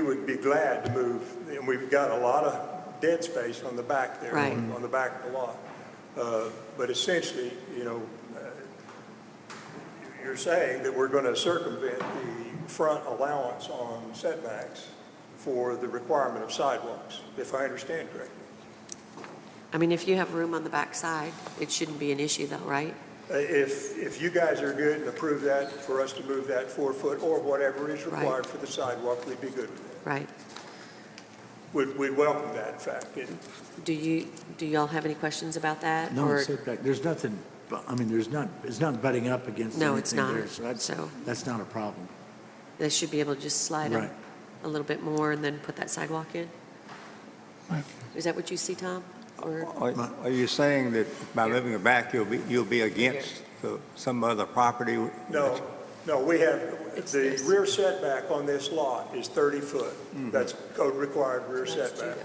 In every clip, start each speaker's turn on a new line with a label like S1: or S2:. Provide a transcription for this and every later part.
S1: We would be glad to move, and we've got a lot of dead space on the back there,
S2: Right.
S1: on the back of the lot. Uh, But essentially, you know, uh, you're saying that we're going to circumvent the front allowance on setbacks for the requirement of sidewalks, if I understand correctly.
S2: I mean, if you have room on the back side, it shouldn't be an issue though, right?
S1: Uh, If, if you guys are good and approve that, for us to move that four foot or whatever is
S2: Right.
S1: required for the sidewalk, we'd be good with that.
S2: Right.
S1: We'd, we'd welcome that, in fact. It-
S2: Do you, do y'all have any questions about that?
S3: No
S2: Or-
S3: setback, there's nothing, bu- I mean, there's not, it's not butting up against
S2: No, it's
S3: anything
S2: not.
S3: there, so that's,
S2: So-
S3: that's not a problem.
S2: They should be able to just slide them
S3: Right.
S2: a little bit more and then put that sidewalk in? Is that what you see, Tom? Or,
S4: Are are you saying that by moving it back, you'll be, you'll be against the- some other property?
S1: No, no, we have,
S2: It's
S1: the
S2: this.
S1: rear setback on this lot is 30 foot. That's code required rear setback.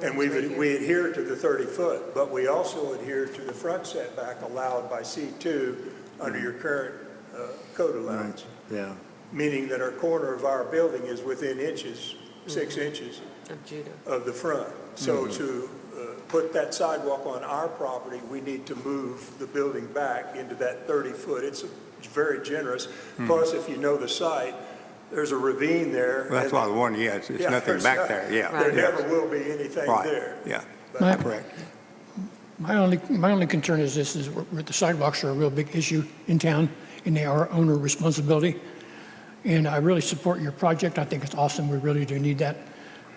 S1: And we we adhere to the 30 foot, but we also adhere to the front setback allowed by C2 under your current uh, code allowance,
S3: Yeah,
S1: meaning that our corner of our building is within inches, six
S2: Mm-hmm.
S1: inches
S2: Of Judah.
S1: of the front. So
S4: Mm-hmm.
S1: to uh, put that sidewalk on our property, we need to move the building back into that 30-foot. It's very generous.
S4: Mm.
S1: Plus, if you know the site, there's a ravine there.
S4: Well, That's what I was wondering, yeah, it's it's
S1: Yeah,
S4: nothing
S1: there's
S4: back
S1: not-
S4: there, yeah.
S1: There
S2: Right.
S4: yeah,
S1: never will be anything
S4: Right,
S1: there.
S4: Yeah,
S1: But-
S4: correct.
S5: My only, my only concern is this, is we're- the sidewalks are a real big issue in town, and they are owner responsibility. And I really support your project, I think it's awesome, we really do need that.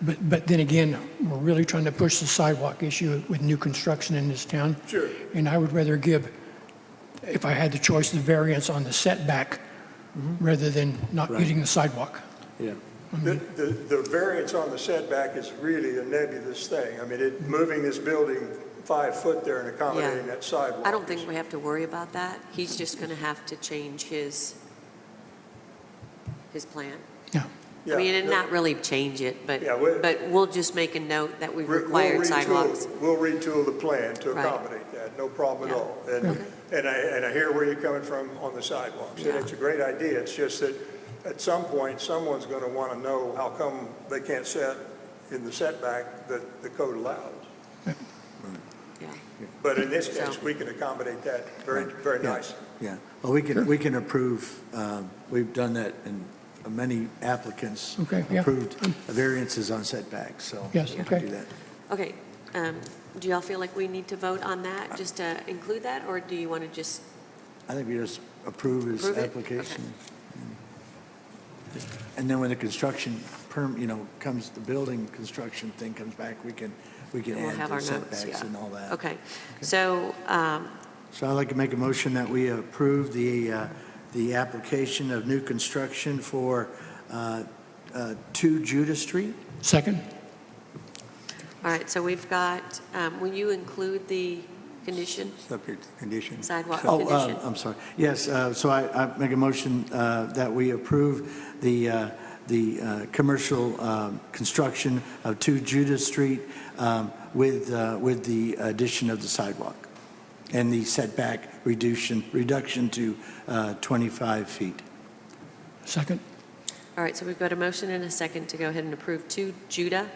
S5: But, but then again, we're really trying to push the sidewalk issue with new construction in this town.
S1: Sure.
S5: And I would rather give, if I had the choice, the variance on the setback rather than not
S3: Right.
S5: getting the sidewalk.
S3: yeah.
S1: The, the the variance on the setback is really a nebulous thing. I mean, it, moving this building five foot there and accommodating that sidewalk.
S2: I don't
S1: is-
S2: think we have to worry about that. He's just going to have to change his, his plan.
S5: Yeah,
S2: I mean,
S1: Yeah,
S2: and
S1: no.
S2: not really change it, but,
S1: Yeah, we-
S2: but we'll just make a note that we've
S1: We'll
S2: required
S1: retool-
S2: sidewalks.
S1: We'll retool the plan to
S2: Right.
S1: accommodate that, no problem at
S2: Yeah.
S1: all. And, and I, and I hear where you're coming from on the sidewalks, and
S2: Yeah.
S1: it's a great idea, it's just that at some point, someone's gonna wanna know how come they can't set in the setback that the code allows.
S2: Yeah.
S1: But in this case,
S2: So-
S1: we can accommodate that very, very
S3: Yeah,
S1: nicely.
S3: Yeah, well, we can, we can approve, um, we've done that, and many applicants
S5: Okay, yeah.
S3: approved variances on setbacks, so.
S5: Yes,
S3: we can
S5: okay.
S3: do that.
S2: Okay, um, do y'all feel like we need to vote on that, just to include that, or do you want to just,
S3: I think we just approve his
S2: Approve it?
S3: application. And then when the construction perm, you know, comes, the building construction thing comes back, we can, we can
S2: we'll
S3: add
S2: have our
S3: the
S2: notes? Yeah.
S3: setbacks and all that.
S2: Okay, so, um,
S3: So I'd like to make a motion that we approve the, uh, the application of new construction for uh, uh, 2 Judah Street.
S5: second?
S2: all right, so we've got, um, will you include the condition,
S4: Subject to condition.
S2: sidewalk
S4: So-
S3: Oh, uh,
S2: condition?
S3: I'm sorry. Yes, uh, so I, I make a motion uh, that we approve the, uh, the uh, commercial um, construction of 2 Judah Street um, with, uh, with the addition of the sidewalk and the setback reduction, reduction to uh, 25 feet.
S5: Second?
S2: All right, so we've got a motion and a second to go ahead and approve two Judah.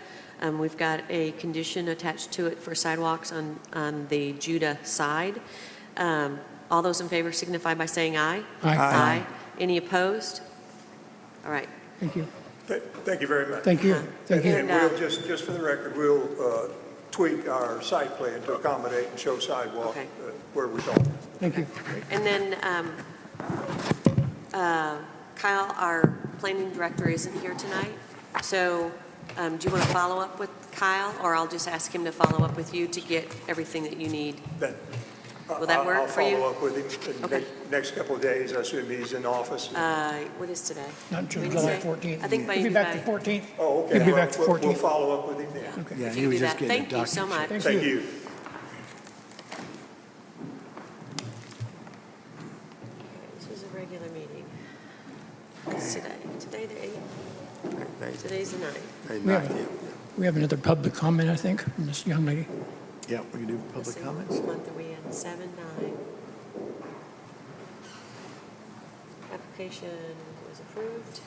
S2: Um, We've got a condition attached to it for sidewalks on, on the Judah side. Um, All those in favor signify by saying aye.
S5: Aye. Aye.
S2: Aye. Any opposed? All right,
S5: Thank you.
S1: Th- Thank you very much.
S5: Thank you, thank you.
S1: And
S2: And, uh,
S1: we'll, just, just for the record, we'll uh, tweak our site plan to accommodate and show sidewalk
S2: Okay.
S1: uh, where we don't.
S5: Thank you.
S2: And then um, uh, Kyle, our planning director, isn't here tonight, so um, do you want to follow up with Kyle, or I'll just ask him to follow up with you to get everything that you need?
S1: That-
S2: Will that
S1: I'll-
S2: work for you?
S1: I'll follow up with him in the
S2: Okay.
S1: next- next couple of days. I assume he's in office.
S2: Uh, What is today?
S5: Not until July
S2: Wednesday?
S5: 14th.
S2: I think by,
S5: We'll be back
S2: by,
S5: the 14th.
S1: Oh, okay.
S5: We'll be
S1: Well,
S5: back the
S1: we'll- We'll
S5: 14th.
S1: follow up with him then.
S5: Okay.
S3: Yeah,
S2: if
S3: he
S2: you do
S3: was just
S2: that.
S3: getting
S2: Thank
S3: a
S2: you so
S3: document.
S2: much.
S5: Thank
S1: Thank
S5: you.
S1: you.
S2: This was a regular meeting. It's today, today the 8th,
S4: They- they-
S2: today's the 9th.
S4: they
S5: We have
S4: knocked
S5: a-
S4: it.
S5: We have another public comment, I think, from this young lady.
S3: Yeah, we can do
S2: Let's
S3: public
S2: see,
S3: comments.
S2: Which month are we in? Seven, nine. Application was approved.